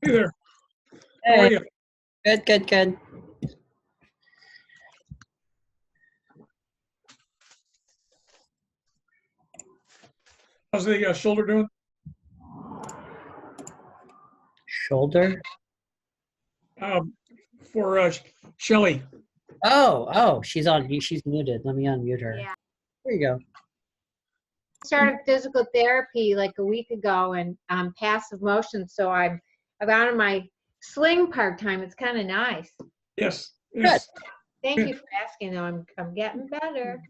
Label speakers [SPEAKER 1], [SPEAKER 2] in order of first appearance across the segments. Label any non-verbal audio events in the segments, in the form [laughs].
[SPEAKER 1] Hey there. How are
[SPEAKER 2] Hey,
[SPEAKER 1] you?
[SPEAKER 2] good, good, good.
[SPEAKER 1] How's the uh, shoulder doing?
[SPEAKER 2] Shoulder?
[SPEAKER 1] Um, for uh, Shelly.
[SPEAKER 2] Oh, oh, she's on, she's muted. Let me unmute her.
[SPEAKER 3] Yeah.
[SPEAKER 2] There you go.
[SPEAKER 3] started physical therapy like a week ago and um, passive motion. So I'm I'm out of my sling part time. It's kind of nice.
[SPEAKER 1] Yes. yes.
[SPEAKER 3] Thank you for asking. Though I'm I'm getting better.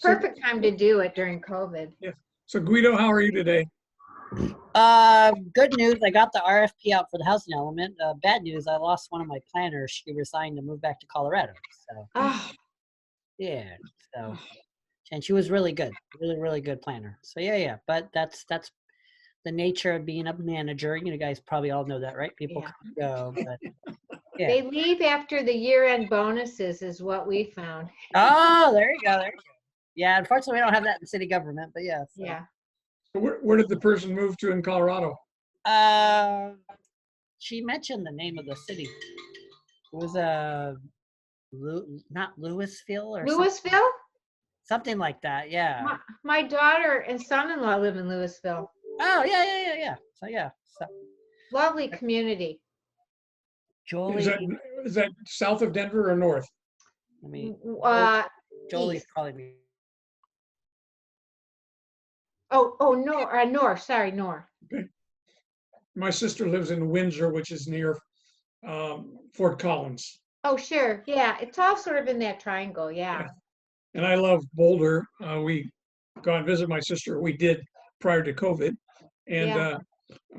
[SPEAKER 3] Perfect time to do it during COVID.
[SPEAKER 1] So Guido, how are you today?
[SPEAKER 2] Uh, good news, I got the RFP out for the housing element. Uh, bad news, I lost one of my planners. She resigned to move back to Colorado. So,
[SPEAKER 3] Oh,
[SPEAKER 2] yeah,
[SPEAKER 1] Oh.
[SPEAKER 2] so, and she was really good, really, really good planner. So, yeah, yeah, but that's, that's the nature of being a manager. You know, guys probably all know that, right? People
[SPEAKER 3] Yeah.
[SPEAKER 2] come and go,
[SPEAKER 1] [laughs]
[SPEAKER 2] but, yeah.
[SPEAKER 3] they leave after the year end bonuses is what we found.
[SPEAKER 2] Oh, there you go. There you go. Yeah, unfortunately, we don't have that in city government, but yeah. so.
[SPEAKER 3] Yeah.
[SPEAKER 1] So Where, where did the person move to in Colorado?
[SPEAKER 2] Uh, she mentioned the name of the city. It was a, Lew- not Louisville or some-
[SPEAKER 3] Louisville?
[SPEAKER 2] something like that. Yeah.
[SPEAKER 3] Huh. My daughter and son-in-law live in Louisville.
[SPEAKER 2] Oh, yeah, yeah, yeah, yeah. So yeah, so
[SPEAKER 3] Lovely community.
[SPEAKER 2] Jolie.
[SPEAKER 1] Is that, is that south of Denver or north?
[SPEAKER 2] I mean,
[SPEAKER 3] Uh,
[SPEAKER 2] Jolie's calling me.
[SPEAKER 3] oh, oh, no, uh, north, sorry, north.
[SPEAKER 1] My sister lives in Windsor, which is near um, Fort Collins.
[SPEAKER 3] Oh, sure. Yeah. It's all sort of in that triangle. Yeah.
[SPEAKER 1] And I love Boulder. Uh, we go and visit my sister. We did prior to COVID. And
[SPEAKER 3] Yeah.
[SPEAKER 1] uh,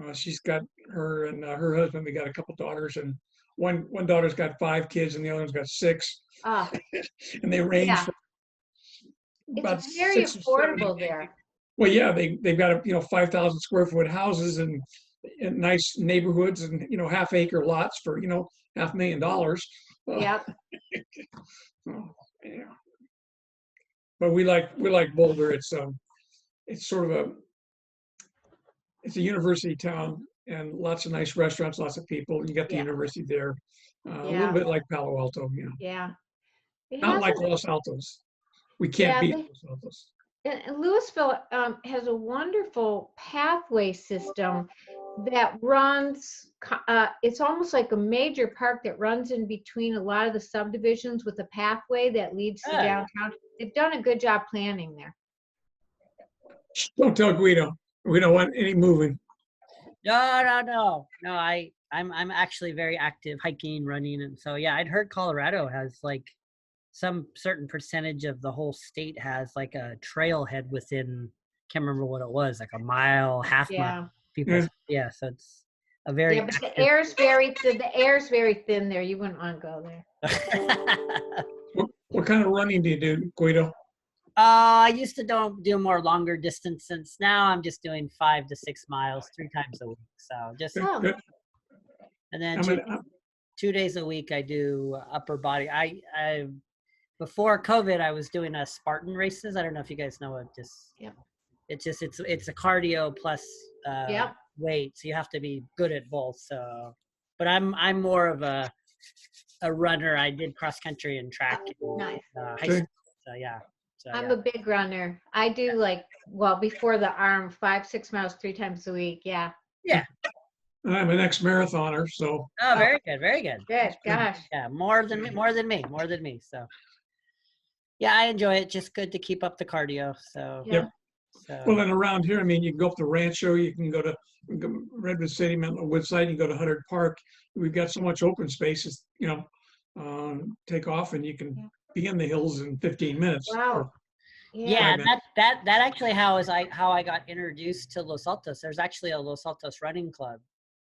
[SPEAKER 1] uh, she's got her and uh, her husband. They got a couple daughters, and one one daughter's got five kids, and the other one's got six.
[SPEAKER 3] Oh,
[SPEAKER 1] And they range
[SPEAKER 3] Yeah.
[SPEAKER 1] from about
[SPEAKER 3] it's very
[SPEAKER 1] six or seven.
[SPEAKER 3] affordable there.
[SPEAKER 1] Well, yeah, they they've got a, you know five thousand square foot houses and, and nice neighborhoods and you know half acre lots for you know half million dollars. Uh,
[SPEAKER 3] Yep.
[SPEAKER 1] Oh, yeah. But we like we like Boulder. It's um, it's sort of a it's a university town and lots of nice restaurants, lots of people. You got the
[SPEAKER 3] Yeah.
[SPEAKER 1] university there, uh, a little
[SPEAKER 3] Yeah.
[SPEAKER 1] bit like Palo Alto, you know,
[SPEAKER 3] Yeah. It
[SPEAKER 1] not
[SPEAKER 3] has
[SPEAKER 1] like
[SPEAKER 3] a-
[SPEAKER 1] Los Altos. We can't
[SPEAKER 3] Yeah,
[SPEAKER 1] beat
[SPEAKER 3] they-
[SPEAKER 1] Los Altos.
[SPEAKER 3] and- and Louisville um, has a wonderful pathway system that runs, co- uh, it's almost like a major park that runs in between a lot of the subdivisions with a pathway that leads to
[SPEAKER 2] Yeah.
[SPEAKER 3] downtown. They've done a good job planning there.
[SPEAKER 1] Shh, Don't tell Guido. We don't want any moving.
[SPEAKER 2] No, no, no, no. I, I'm, I'm actually very active, hiking, running, and so yeah. I'd heard Colorado has like some certain percentage of the whole state has like a trailhead within. Can't remember what it was, like a mile, half mile.
[SPEAKER 3] Yeah.
[SPEAKER 2] People, yeah. So it's a very.
[SPEAKER 3] Yeah, but the
[SPEAKER 2] active-
[SPEAKER 3] air's very, th- the air's very thin there. You wouldn't want to go there.
[SPEAKER 2] [laughs]
[SPEAKER 1] What kind of running do you do, Guido?
[SPEAKER 2] uh, I used to don't do more longer distances. Now I'm just doing five to six miles, three times a week. So just
[SPEAKER 3] Oh.
[SPEAKER 1] Good.
[SPEAKER 2] and then
[SPEAKER 1] I'm
[SPEAKER 2] two-
[SPEAKER 1] an- I'm-
[SPEAKER 2] two days a week I do upper body. I, I before COVID I was doing a Spartan races. I don't know if you guys know it. Just
[SPEAKER 3] Yep.
[SPEAKER 2] It's just it's it's a cardio plus uh,
[SPEAKER 3] Yep.
[SPEAKER 2] weight. So you have to be good at both. So, but I'm I'm more of a a runner. I did cross country and track. in,
[SPEAKER 3] Oh, nice.
[SPEAKER 2] Uh, high
[SPEAKER 1] Okay.
[SPEAKER 2] school. So yeah. So,
[SPEAKER 3] I'm
[SPEAKER 2] yeah.
[SPEAKER 3] a big runner. I do like, well, before the arm, five, six miles, three times a week. Yeah.
[SPEAKER 1] I'm an ex-marathoner, so
[SPEAKER 2] oh, very good. Very good.
[SPEAKER 3] Good. Gosh.
[SPEAKER 2] Yeah, more than me, more than me, more than me. So, yeah, I enjoy it. Just good to keep up the cardio. So,
[SPEAKER 3] Yep.
[SPEAKER 2] so.
[SPEAKER 1] Well, and around here, I mean, you can go up to Rancho, you can go to you can go Redwood City, Mountain Woodside, you can go to Huddard Park. We've got so much open spaces, you know, um, take off and you
[SPEAKER 3] Yeah.
[SPEAKER 1] can be in the hills in 15 minutes.
[SPEAKER 3] Wow.
[SPEAKER 2] Yeah,
[SPEAKER 1] Right,
[SPEAKER 2] and that that that actually how is I how I got introduced to Los Altos. There's actually a Los Altos running club.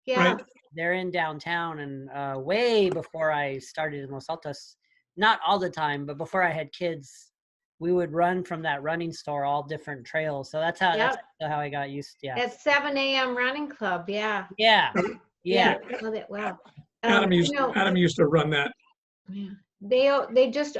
[SPEAKER 3] Yeah.
[SPEAKER 1] Right.
[SPEAKER 2] They're in downtown, and uh, way before I started in Los Altos, not all the time, but before I had kids, we would run from that running store all different trails. So that's how that's actually how I got used. Yeah,
[SPEAKER 3] At 7 a.m. running club. Yeah.
[SPEAKER 2] yeah, yeah.
[SPEAKER 3] I know that well. Um,
[SPEAKER 1] Adam
[SPEAKER 3] you
[SPEAKER 1] used,
[SPEAKER 3] know,
[SPEAKER 1] Adam used to run that.
[SPEAKER 3] yeah. They, o- they just